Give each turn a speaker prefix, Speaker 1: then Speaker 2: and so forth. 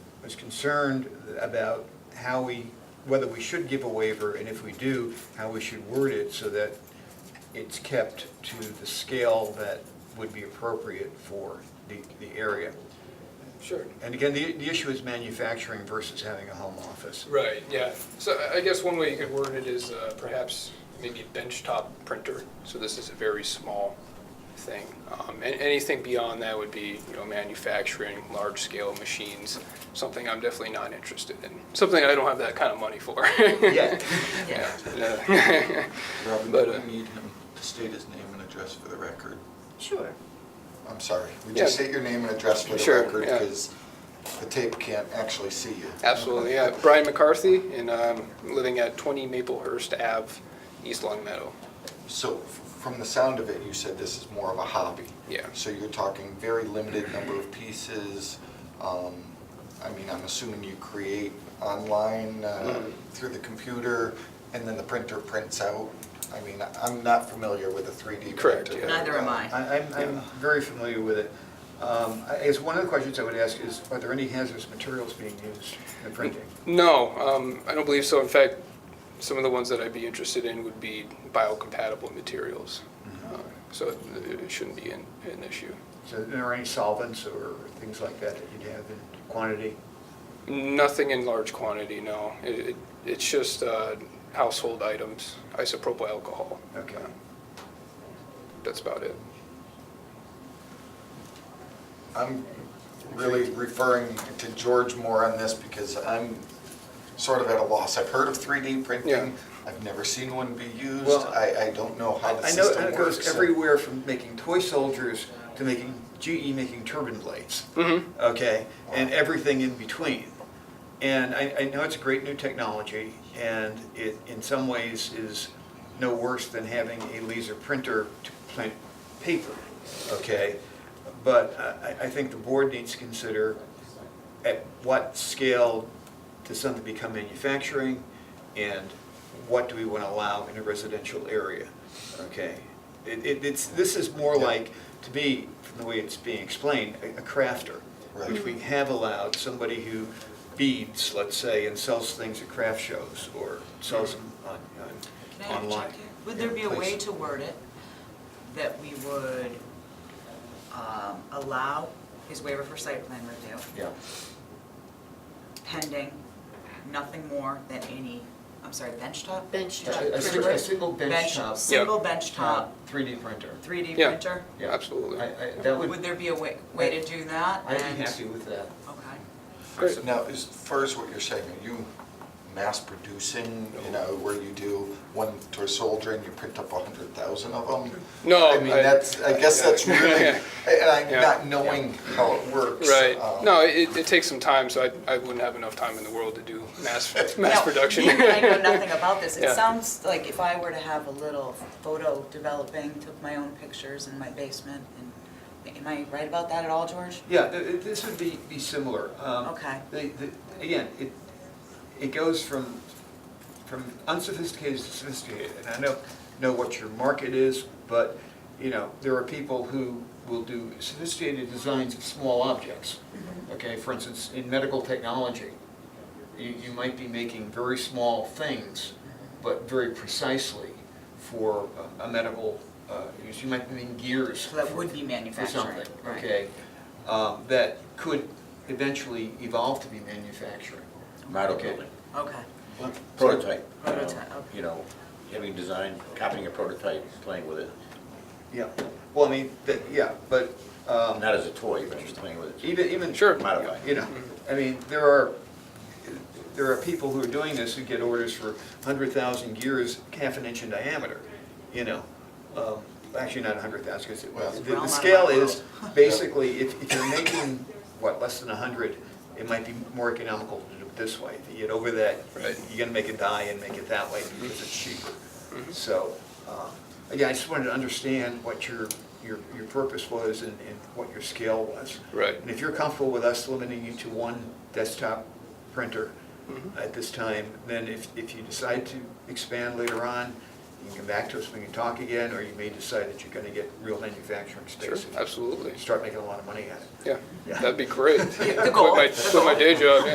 Speaker 1: is concerned about how we, whether we should give a waiver, and if we do, how we should word it so that it's kept to the scale that would be appropriate for the, the area.
Speaker 2: Sure.
Speaker 1: And again, the, the issue is manufacturing versus having a home office.
Speaker 2: Right, yeah. So I- I guess one way you could word it is uh, perhaps maybe a benchtop printer. So this is a very small thing. Um, And anything beyond that would be, you know, manufacturing, large-scale machines, something I'm definitely not interested in. Something I don't have that kind of money for.
Speaker 1: Yeah.
Speaker 2: Yeah. Yeah.
Speaker 3: Robin,
Speaker 2: But,
Speaker 3: do
Speaker 2: uh,
Speaker 3: we need him to state his name and address for the record?
Speaker 4: Sure.
Speaker 5: I'm sorry, would
Speaker 2: Yeah.
Speaker 5: you state your name and address for the
Speaker 2: Sure,
Speaker 5: record?
Speaker 2: yeah.
Speaker 5: Because the tape can't actually see you.
Speaker 2: Absolutely, yeah. Brian McCarthy, and I'm living at 20 Maplehurst Ave, East Long Meadow.
Speaker 5: So f- from the sound of it, you said this is more of a hobby.
Speaker 2: Yeah.
Speaker 5: So you're talking very limited number of pieces. um, I mean, I'm assuming you create online uh,
Speaker 2: Mm-hmm.
Speaker 5: through the computer and then the printer prints out. I mean, I'm not familiar with a 3D printer.
Speaker 2: Correct, yeah.
Speaker 4: Neither am
Speaker 5: Uh,
Speaker 4: I.
Speaker 1: I- Uh, I'm, I'm very familiar with it. Um, I guess one of the questions I would ask is, are there any hazardous materials being used in the printing?
Speaker 2: No, um, I don't believe so. In fact, some of the ones that I'd be interested in would be biocompatible materials.
Speaker 5: Mm-hmm.
Speaker 2: Uh, So it it shouldn't be an, an issue.
Speaker 1: So are there any solvents or things like that that you'd have in quantity?
Speaker 2: Nothing in large quantity, no. It, it, it's just, uh, household items, isopropyl alcohol.
Speaker 1: Okay.
Speaker 2: That's about it.
Speaker 5: I'm really referring to George more on this because I'm sort of at a loss. I've heard of 3D
Speaker 2: Yeah.
Speaker 5: printing. I've never seen one be used.
Speaker 1: Well,
Speaker 5: I, I don't know how the
Speaker 1: I know
Speaker 5: system
Speaker 1: it goes
Speaker 5: works.
Speaker 1: everywhere from making toy soldiers to making, GE making turbine blades.
Speaker 2: Mm-hmm.
Speaker 1: Okay, and everything in between. And I, I know it's a great new technology, and it, in some ways, is no worse than having a laser printer to print paper, okay? But I, I- I think the board needs to consider at what scale does something become manufacturing, and what do we want to allow in a residential area, okay? It, it- it's, this is more like, to me, from the way it's being explained, a a crafter, which
Speaker 5: Right.
Speaker 1: we have allowed somebody who beads, let's say, and sells things at craft shows or sells them on,
Speaker 4: Can I
Speaker 1: on, online.
Speaker 4: interject here? Would there be a
Speaker 1: Yeah,
Speaker 4: way
Speaker 1: please.
Speaker 4: to word it that we would um, allow his waiver for site plan review
Speaker 5: Yeah.
Speaker 4: pending nothing more than any, I'm sorry, benchtop?
Speaker 6: Bench
Speaker 5: A-
Speaker 6: top
Speaker 5: a si-
Speaker 6: printer.
Speaker 5: a single bench
Speaker 4: Bench,
Speaker 5: top,
Speaker 4: single benchtop
Speaker 5: 3D printer.
Speaker 4: 3D
Speaker 2: Yeah.
Speaker 4: printer?
Speaker 5: Yeah.
Speaker 2: Absolutely.
Speaker 5: I, I, that
Speaker 4: Would
Speaker 5: would,
Speaker 4: there be a way, way to do that?
Speaker 5: I'd
Speaker 4: And-
Speaker 5: be happy with that.
Speaker 4: Okay.
Speaker 2: Great.
Speaker 5: Now, as far as what you're saying, are you mass producing, you know, where you do one to a soldier and you print up a hundred thousand of them?
Speaker 2: No,
Speaker 5: I mean,
Speaker 2: I-
Speaker 5: that's, I guess that's really,
Speaker 2: Yeah.
Speaker 5: and I'm
Speaker 2: Yeah.
Speaker 5: not knowing how it works.
Speaker 2: Right.
Speaker 5: um,
Speaker 2: No, it, it takes some time, so I, I wouldn't have enough time in the world to do mass, mass
Speaker 4: Now,
Speaker 2: production.
Speaker 4: being I know nothing about this.
Speaker 2: Yeah.
Speaker 4: It sounds like if I were to have a little photo developing, took my own pictures in my basement, and, am I right about that at all, George?
Speaker 1: Yeah, th- th- this would be, be similar. Um,
Speaker 4: Okay.
Speaker 1: the- the- Again, it, it goes from, from unsophisticated to sophisticated. And I know, know what your market is, but, you know, there are people who will do sophisticated designs of small objects.
Speaker 4: Mm-hmm.
Speaker 1: Okay, for instance, in medical technology, you, you might be making very small things,
Speaker 4: Mm-hmm.
Speaker 1: but very precisely for a a medical, uh, use. you might be making gears.
Speaker 4: So that would be
Speaker 1: for
Speaker 4: manufacturing,
Speaker 1: something,
Speaker 4: right?
Speaker 1: okay? um, That could eventually evolve to be manufacturing.
Speaker 7: model
Speaker 1: Okay.
Speaker 7: building,
Speaker 4: Okay,
Speaker 7: prototype. you know,
Speaker 4: Prototype, okay.
Speaker 7: You know, having design, copying a prototype, playing with it,
Speaker 1: Yeah, well, I mean, that, yeah, but um,
Speaker 7: not as a toy, but just playing with it.
Speaker 1: even, even.
Speaker 2: Sure.
Speaker 7: Modify.
Speaker 1: You know, I mean, there are, there are people who are doing this who get orders for 100,000 gears, half an inch in diameter, you know? Um, Actually, not 100,000,
Speaker 5: Well-
Speaker 1: because the-
Speaker 4: Realm out
Speaker 1: the
Speaker 4: of
Speaker 1: scale
Speaker 4: my
Speaker 1: is,
Speaker 4: world.
Speaker 1: basically, if if you're making, what, less than 100, it might be more economical to do it this way. If you get over that,
Speaker 2: Right.
Speaker 1: you're gonna make it die and make it that way because it's cheaper.
Speaker 2: Mm-hmm.
Speaker 1: So, uh, again, I just wanted to understand what your, your, your purpose was and and what your scale was.
Speaker 2: Right.
Speaker 1: And if you're comfortable with us limiting you to one desktop printer
Speaker 2: Mm-hmm.
Speaker 1: at this time, then if, if you decide to expand later on, you can come back to us, we can talk again, or you may decide that you're gonna get real manufacturing
Speaker 2: Sure,
Speaker 1: space. and
Speaker 2: absolutely.
Speaker 1: Start making a lot of money at it.
Speaker 2: Yeah,
Speaker 1: Yeah.
Speaker 2: that'd be great.
Speaker 4: The goal.
Speaker 2: Quit my, quit my day job, yeah.